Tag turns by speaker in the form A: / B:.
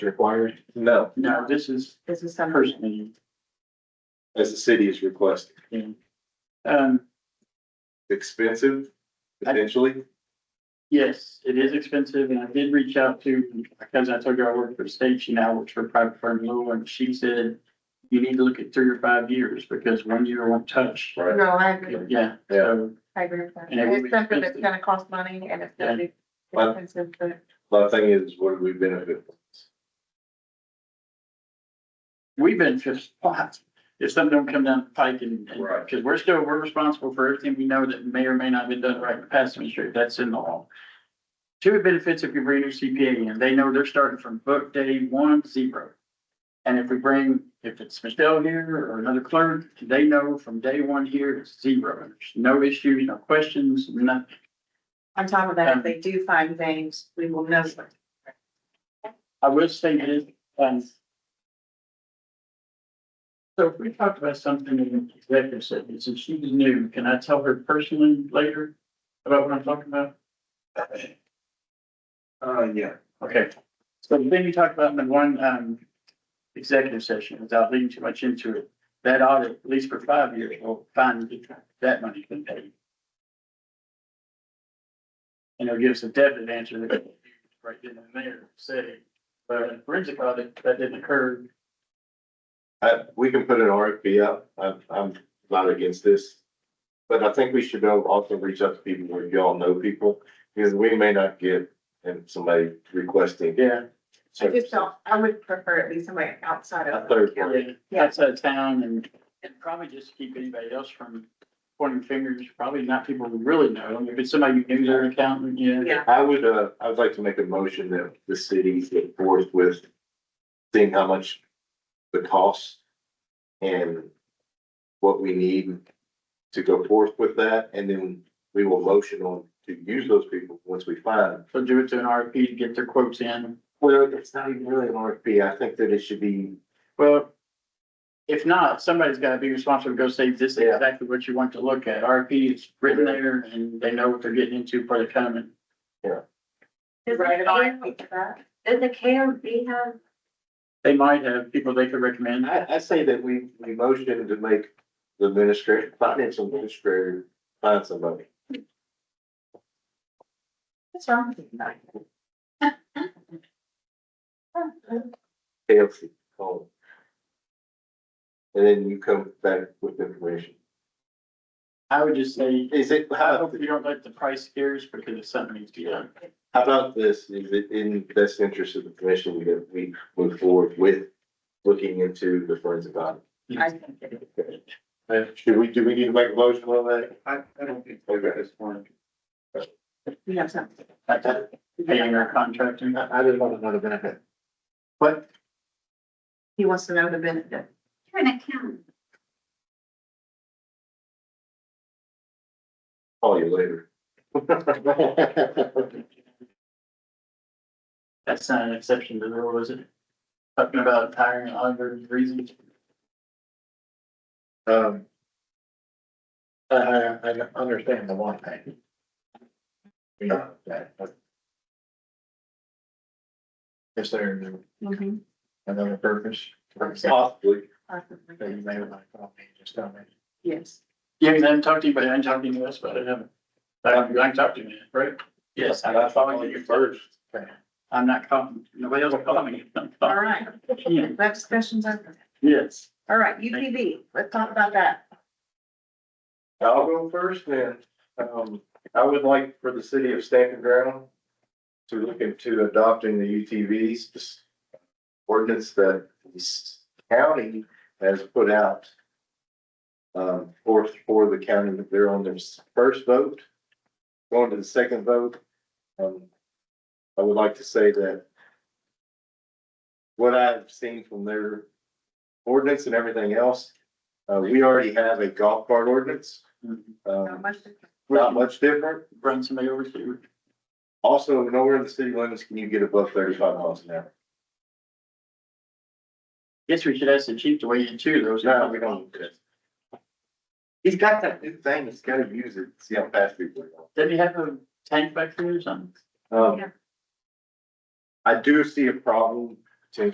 A: required
B: No,
C: No, this is
D: This is some
C: personally,
B: as the city is requesting.
C: um,
B: Expensive, potentially.
C: yes, it is expensive and I did reach out to, because I told you I work for the state, she now works for a private firm Lowell and she said. You need to look at three or five years because one year won't touch.
D: No, I agree.
C: Yeah, so
D: I agree with that.
C: And it would be
D: It's something that's
C: expensive.
D: gonna cost money and it's gonna be
B: Well-
D: expensive, but
B: My thing is, what do we benefit? from?
C: we've been just lots. If something don't come down the pike and, and-
B: Right.
C: because we're still, we're responsible for everything we know that may or may not have been done right in the past administration, that's in the law. Two it benefits if you bring your CPA in, they know they're starting from book day one, zero. And if we bring, if it's Michelle here or another clerk, they know from day one here, it's zero, there's no issues, no questions, nothing.
D: on top of that,
C: Um,
D: if they do find things, we will know.
C: I will say this, um. So if we talked about something in executive session, since she's new, can I tell her personally later about what I'm talking about?
B: Uh, yeah.
C: Okay, so then you talked about in the one, um, executive session, without leading too much into it. That audit, at least for five years, will find that that money's been paid. And it'll give us a definite answer that right then and there, say, but in forensic audit, that didn't occur,
B: I, we can put an RFP out. I'm, I'm not against this. But I think we should go also reach out to people where y'all know people, because we may not get, and somebody requesting.
C: yeah,
D: I just don't, I would prefer at least somebody outside of.
B: A third
D: Yeah.
B: party.
C: yeah, outside of town and, and probably just keep anybody else from pointing fingers, probably not people we really know. I mean, If it's somebody you knew, their accountant, yeah.
D: Yeah,
B: I would, uh, I would like to make a motion that the city get forth with seeing how much the cost and what we need to go forth with that, and then we will motion on to use those people once we find. them.
C: So do it to an RFP to get their quotes in.
B: Well, it's not even really an RFP. I think that it should be,
C: Well, if not, somebody's gotta be responsible to go say, this is
B: Yeah.
C: exactly what you want to look at. RFP is written there and they know what they're getting into for the coming.
E: Does
D: right,
E: the
D: I
E: KOB,
D: think that.
E: does the KOB have,
C: They might have people they could recommend.
B: I, I say that we, we motion him to make the administrator, finance administrator, find somebody.
D: What's wrong with you?
B: KFC, call it. And then you come back with information.
C: I would just say,
B: Is it,
C: I
B: how,
C: hope you don't let the price scare us because if something needs to be done.
B: how about this, is it in the best interest of the commission that we move forward with looking into the forensic audit?
D: I think it is.
B: Uh, Should we, do we need to make a motion on that?
C: I, I don't think
B: Okay.
C: this point.
D: We have something.
C: Paying our contractor.
B: I, I didn't want another benefit.
C: But
D: He wants to know the benefit.
E: you're an accountant,
B: Call you later.
C: that's not an exception to the rule, is it? Talking about hiring an auditor reasons.
F: Um. I, I, I understand the one thing. We know that, but. Is there
E: Mm-hmm.
D: Mhm.
F: another purpose?
B: Possibly,
F: That you may like, I'll be just tell me.
D: Yes.
C: Yeah, because I haven't talked to anybody, I haven't talked to anyone else about it, haven't. I haven't I haven't talked to you, right? Yes,
B: I followed you first.
C: I'm not calling, nobody else calling me. I'm
D: All
C: calling-
D: right,
C: Yeah,
D: that discussion's over.
C: Yes.
D: All right, UPB, let's talk about that.
B: I'll go first then. Um, I would like for the city of Stamping Ground to look into adopting the UTVs this ordinance that the county has put out. Um, for, for the county, they're on their first vote, going to the second vote. Um, I would like to say that what I've seen from their ordinance and everything else, uh, we already have a golf cart ordinance.
D: How
B: Um,
D: much
B: not much different.
C: Bring Mm-hmm. somebody over to you.
B: Also, nowhere in the city limits can you get above thirty-five miles an hour.
C: Guess we should ask the chief to weigh in too, those.
B: No, we don't. do that. He's got that new thing. He's gotta use it, see how fast people go.
C: Did he have a tank back there or something?
B: Um,
D: Yeah.
B: I do see a problem